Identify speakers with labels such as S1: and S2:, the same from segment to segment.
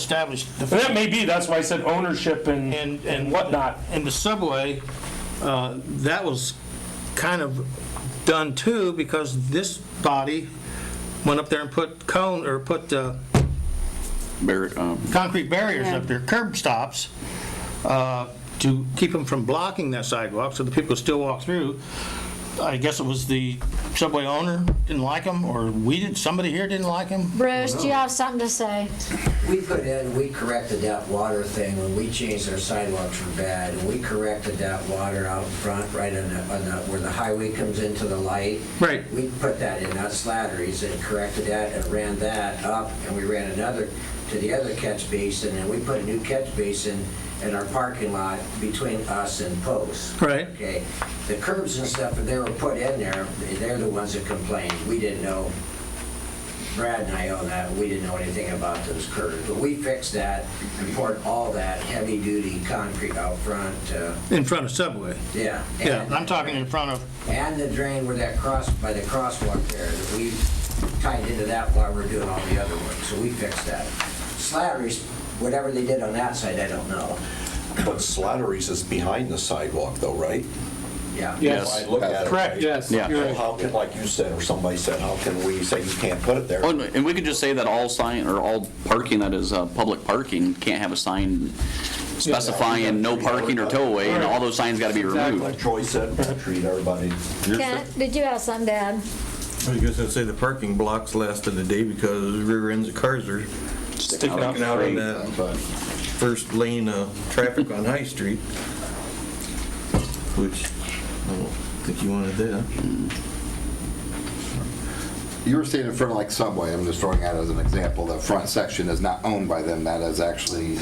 S1: established.
S2: And that may be, that's why I said ownership and,
S1: And-
S2: and whatnot.
S1: And the subway, uh, that was kind of done too, because this body went up there and put cone, or put uh,
S3: Barrett, um,
S1: concrete barriers up there, curb stops, uh, to keep them from blocking that sidewalk, so the people could still walk through. I guess it was the subway owner didn't like them, or we did, somebody here didn't like them.
S4: Bruce, do you have something to say?
S5: We put in, we corrected that water thing when we changed our sidewalks from bad, and we corrected that water out front, right on the, on the, where the highway comes into the light.
S1: Right.
S5: We put that in, not slatteries, and corrected that and ran that up, and we ran another to the other catch basin, and we put a new catch basin in our parking lot between us and Post.
S1: Right.
S5: Okay, the curbs and stuff, that they were put in there, they're the ones that complained, we didn't know Brad and I own that, we didn't know anything about those curves, but we fixed that and poured all that heavy-duty concrete out front, uh,
S1: In front of Subway.
S5: yeah.
S1: Yeah,
S5: And-
S1: I'm talking in front of,
S5: And the drain where that cross, by the crosswalk there, that we tied into that while we're doing all the other work, so we fixed that. Slatteries, whatever they did on that side, I don't know,
S6: But Slattery's is behind the sidewalk though, right?
S5: yeah.
S3: Yes.
S6: If I look at it,
S2: Correct,
S6: right?
S2: yes.
S3: Yeah.
S2: you're
S6: So
S2: right.
S6: How can, like you said, or somebody said, how can we say you can't put it there?
S3: oh, and- and we could just say that all sign, or all parking that is uh, public parking can't have a sign specifying no parking or tow away, and all those signs got to be
S6: Like
S3: removed.
S6: Troy said, treat everybody.
S4: Kent, did you have something to add?
S7: I guess I'd say the parking blocks lasted a day because rear ends of cars are
S3: Sticking out.
S7: sticking out in that first lane of traffic on High Street, which I don't think you wanted that.
S8: You were saying in front of like Subway, I'm just throwing out as an example, the front section is not owned by them, that is actually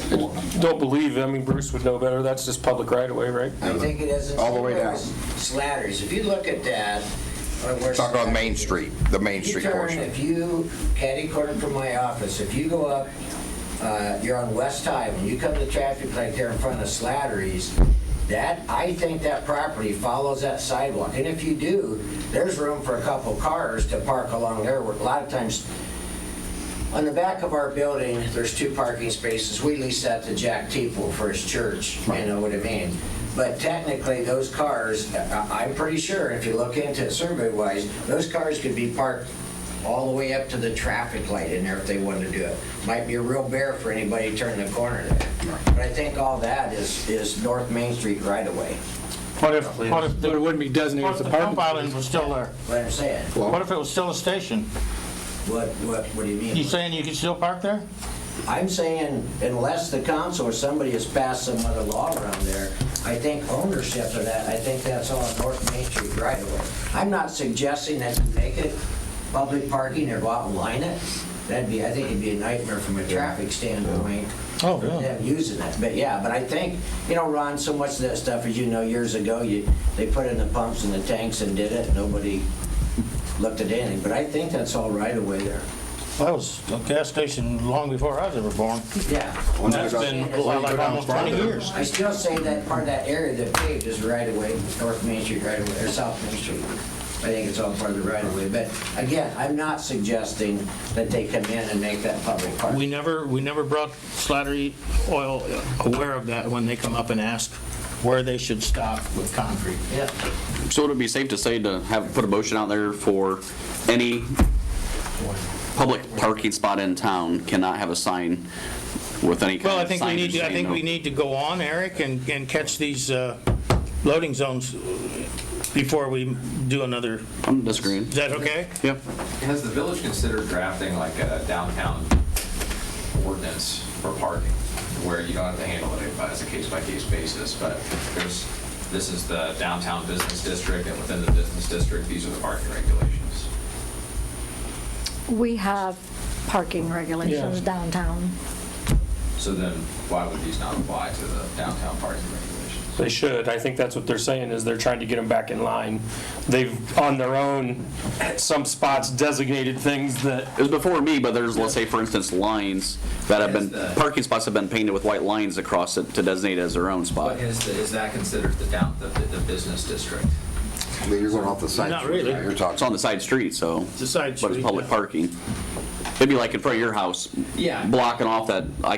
S2: Don't believe, I mean, Bruce would know better, that's just public right away, right?
S5: I think it is. in-
S8: All the way down.
S5: Slatteries, if you look at that. or where
S8: Talking on Main
S5: Slatteries-
S8: Street, the Main
S5: If you
S8: Street
S5: turn,
S8: portion.
S5: If you catty corner from my office, if you go up, uh, you're on West High, when you come to traffic light there in front of Slattery's, that, I think that property follows that sidewalk. And if you do, there's room for a couple cars to park along there. A lot of times, on the back of our building, there's two parking spaces. We lease that to Jack Teeple for his church, you know what I mean? But technically, those cars, I- I'm pretty sure, if you look into it survey-wise, those cars could be parked all the way up to the traffic light in there if they wanted to do it. Might be a real bear for anybody turning the corner there. But I think all that is, is North Main Street right away,
S2: What if, what if,
S9: But it wouldn't be designated
S1: what if
S9: as a
S1: the pump
S9: parking.
S1: island was still there?
S5: what I'm saying.
S1: What if it was still a station?
S5: What, what, what do you mean?
S1: You saying you could still park there?
S5: I'm saying unless the council or somebody has passed some other law around there, I think ownership of that, I think that's all North Main Street right away. I'm not suggesting that you make it public parking or go out and line it. That'd be, I think it'd be a nightmare from a traffic standpoint.
S1: Oh,
S5: for them Using it, but yeah, but I think, you know, Ron, so much of that stuff, as you know, years ago, you, they put in the pumps and the tanks and did it, nobody looked at anything, but I think that's all right away there.
S1: That was a gas station long before I was ever born.
S5: Yeah.
S8: Once you
S1: That's
S8: go-
S1: been
S8: once you go
S1: like
S8: down
S1: almost
S8: farther,
S1: 20 years.
S5: I still say that part of that area that paved is right away, North Main Street right away, or South Main Street. I think it's all part of the right of way, but again, I'm not suggesting that they come in and make that public park.
S1: We never, we never brought Slattery Oil aware of that when they come up and ask where they should stop with concrete.
S5: Yeah.
S3: So would it be safe to say to have, put a motion out there for any public parking spot in town cannot have a sign with any
S1: Well, I
S3: kind of signage?
S1: think we need, to. I
S3: saying
S1: think
S3: no-
S1: we need to go on, Eric, and, and catch these uh, loading zones before we do another,
S3: I'm disagreeing.
S1: is that okay?
S3: Yeah.
S10: Has the village considered drafting like a downtown ordinance for parking, where you don't have to handle it by- as a case-by-case basis, but there's, this is the downtown business district, and within the business district, these are the parking regulations?
S4: We have parking regulations
S2: Yeah.
S4: downtown.
S10: So then, why would these not apply to the downtown parking regulations?
S2: they should, I think that's what they're saying, is they're trying to get them back in line. They've, on their own, some spots designated things that
S3: It was before me, but there's, let's say, for instance, lines that have been, parking spots have been painted with white lines across it to designate as their own spot.
S10: But is, the- is that considered the down, the, the business district?
S8: I mean, You're going off the side.
S1: Not
S8: street,
S1: really.
S8: right? You're
S3: It's on
S8: talking,
S3: the side street, so.
S1: It's a side
S3: But
S1: street,
S3: it's public
S1: yeah.
S3: parking. It'd be like in front of your house.
S10: Yeah.
S3: Blocking off that, I